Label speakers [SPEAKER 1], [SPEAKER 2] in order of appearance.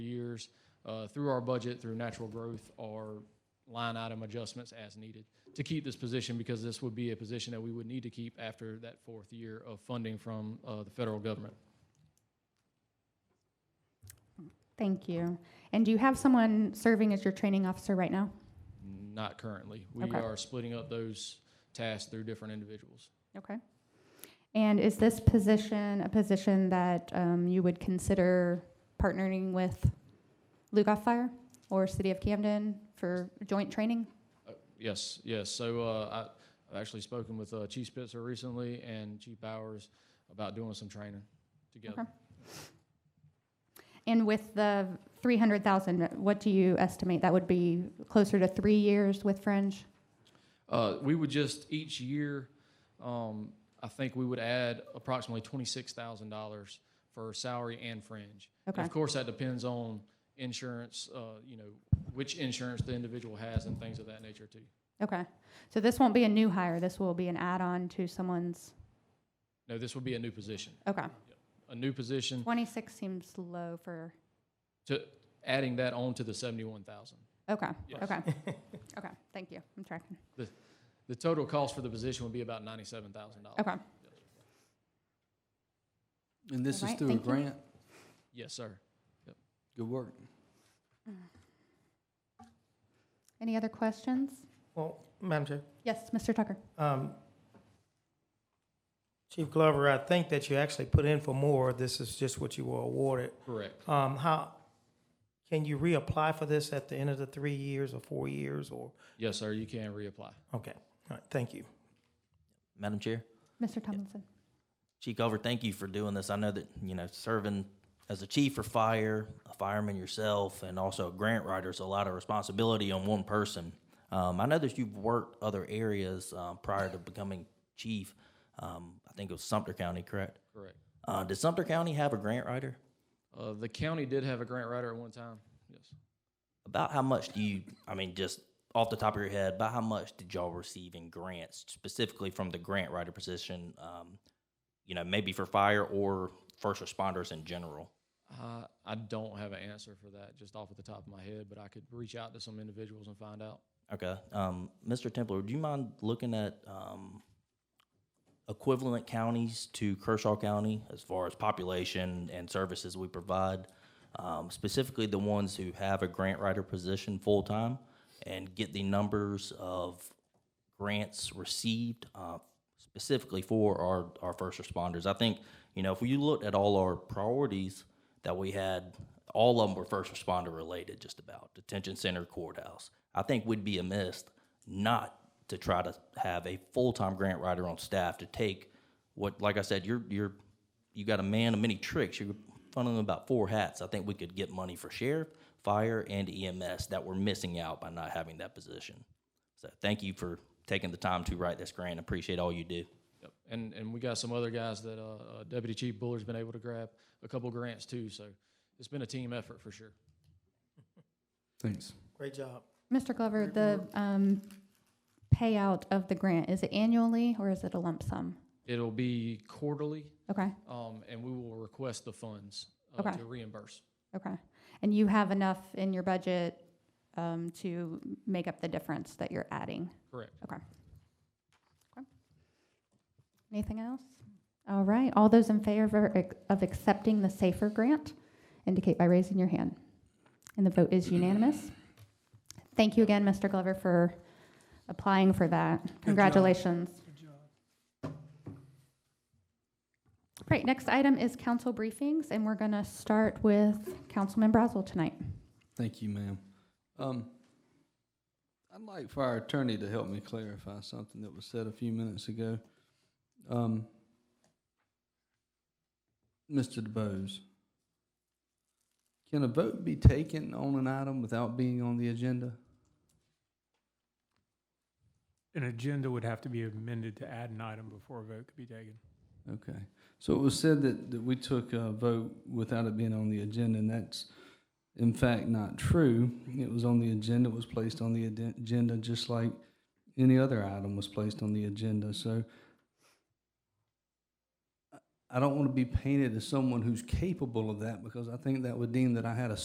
[SPEAKER 1] expenditures uh, through our budget, through natural growth, or line item adjustments as needed to keep this position because this would be a position that we would need to keep after that fourth year of funding from uh, the federal government.
[SPEAKER 2] Thank you. And do you have someone serving as your training officer right now?
[SPEAKER 1] Not currently. We
[SPEAKER 2] Okay.
[SPEAKER 1] are splitting up those tasks through different individuals.
[SPEAKER 2] Okay. And is this position a position that um, you would consider partnering with Lugoff Fire or City of Camden for joint training?
[SPEAKER 1] Uh, Yes, yes. So uh, I- I've actually spoken with uh, Chief Spitzer recently and Chief Bowers about doing some training together.
[SPEAKER 2] Okay. And with the 300,000, what do you estimate? That would be closer to three years with Fringe?
[SPEAKER 1] Uh, We would just, each year, um, I think we would add approximately $26,000 for salary and fringe. And
[SPEAKER 2] Okay.
[SPEAKER 1] Of course, that depends on insurance, uh, you know, which insurance the individual has and things of that nature too.
[SPEAKER 2] Okay. So this won't be a new hire. This will be an add-on to someone's,
[SPEAKER 1] No, this would be a new position.
[SPEAKER 2] okay.
[SPEAKER 1] A new position,
[SPEAKER 2] 26 seems low for,
[SPEAKER 1] to adding that on to the 71,000.
[SPEAKER 2] okay,
[SPEAKER 1] Yes.
[SPEAKER 2] okay. Okay, thank you. I'm tracking.
[SPEAKER 1] The total cost for the position would be about $97,000.
[SPEAKER 2] Okay.
[SPEAKER 3] And this is
[SPEAKER 2] Alright,
[SPEAKER 3] through a
[SPEAKER 2] thank you.
[SPEAKER 3] grant?
[SPEAKER 1] Yes, sir.
[SPEAKER 3] Good work.
[SPEAKER 2] Any other questions?
[SPEAKER 4] Well, Madam Chair,
[SPEAKER 2] Yes, Mr. Tucker.
[SPEAKER 4] um, Chief Glover, I think that you actually put in for more. This is just what you were awarded.
[SPEAKER 1] Correct.
[SPEAKER 4] Um, how, can you reapply for this at the end of the three years or four years or,
[SPEAKER 1] Yes, sir, you can reapply.
[SPEAKER 4] okay, all right, thank you.
[SPEAKER 5] Madam Chair,
[SPEAKER 2] Mr. Tomlinson.
[SPEAKER 5] Chief Glover, thank you for doing this. I know that, you know, serving as a chief for fire, a fireman yourself, and also a grant writer is a lot of responsibility on one person. Um, I know that you've worked other areas uh, prior to becoming chief. Um, I think it was Sumter County, correct?
[SPEAKER 1] Correct.
[SPEAKER 5] Uh, did Sumter County have a grant writer?
[SPEAKER 1] Uh, the county did have a grant writer at one time. Yes.
[SPEAKER 5] About how much do you, I mean, just off the top of your head, about how much did y'all receive in grants specifically from the grant writer position? Um, you know, maybe for fire or first responders in general?
[SPEAKER 1] Uh, I don't have an answer for that just off at the top of my head, but I could reach out to some individuals and find out.
[SPEAKER 5] Okay. Um, Mr. Templer, would you mind looking at um, equivalent counties to Kershaw County as far as population and services we provide? Um, specifically, the ones who have a grant writer position full time and get the numbers of grants received uh, specifically for our, our first responders. I think, you know, if you looked at all our priorities that we had, all of them were first responder related, just about detention center, courthouse. I think we'd be amiss not to try to have a full time grant writer on staff to take what, like I said, you're, you're, you got a man of many tricks. You're funneling about four hats. I think we could get money for sheriff, fire, and EMS that we're missing out by not having that position. So thank you for taking the time to write this grant. Appreciate all you do.
[SPEAKER 1] Yep. And and we got some other guys that uh, uh, Deputy Chief Buller's been able to grab a couple grants too. So it's been a team effort for sure.
[SPEAKER 3] Thanks.
[SPEAKER 4] Great job.
[SPEAKER 2] Mr. Glover, the um, payout of the grant, is it annually or is it a lump sum?
[SPEAKER 1] It'll be quarterly,
[SPEAKER 2] Okay,
[SPEAKER 1] um, and we will request the funds uh,
[SPEAKER 2] Okay.
[SPEAKER 1] to reimburse.
[SPEAKER 2] okay. And you have enough in your budget um, to make up the difference that you're adding?
[SPEAKER 1] Correct.
[SPEAKER 2] Okay. Okay. Anything else? All right, all those in favor ac- of accepting the SAFER grant indicate by raising your hand. And the vote is unanimous. Thank you again, Mr. Glover, for applying for that. Congratulations. Great, next item is council briefings, and we're going to start with Councilman Brazel tonight.
[SPEAKER 3] Thank you, ma'am. Um, I'd like for our attorney to help me clarify something that was said a few minutes ago. Um, Mr. DeBose, can a vote be taken on an item without being on the agenda?
[SPEAKER 6] An agenda would have to be amended to add an item before a vote could be taken.
[SPEAKER 3] Okay, so it was said that, that we took a vote without it being on the agenda, and that's in fact not true. It was on the agenda, it was placed on the aden- agenda, just like any other item was placed on the agenda, so I- I don't want to be painted as someone who's capable of that, because I think that would deem that I had a